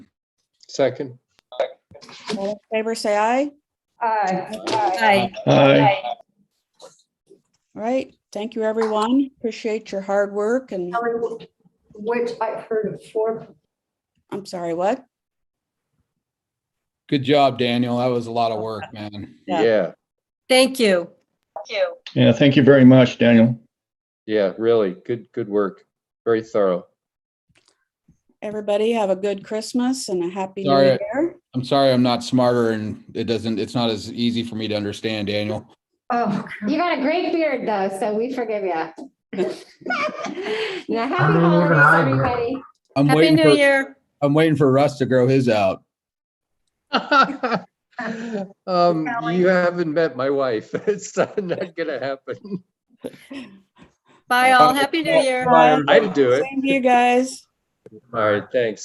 Second. All in favor, say aye. Aye. Aye. All right. Thank you, everyone. Appreciate your hard work and, Kelly, Which I've heard of four, I'm sorry, what? Good job, Daniel. That was a lot of work, man. Yeah. Yeah, Thank you. Yeah, thank you very much, Daniel. yeah, really. Good, good work. Very thorough. Everybody have a good Christmas and a happy new Sorry. year. I'm sorry I'm not smarter and it doesn't, it's not as easy for me to understand, Daniel. oh, You got a great beard though, so we forgive you. Now, happy don't even holidays, have it. everybody. I'm Happy waiting New for, Year. I'm waiting for Russ to grow his out. Um, you haven't met my wife. It's not gonna happen. Bye all. Happy New Year. I'd do it. Same to you guys. All right, thanks.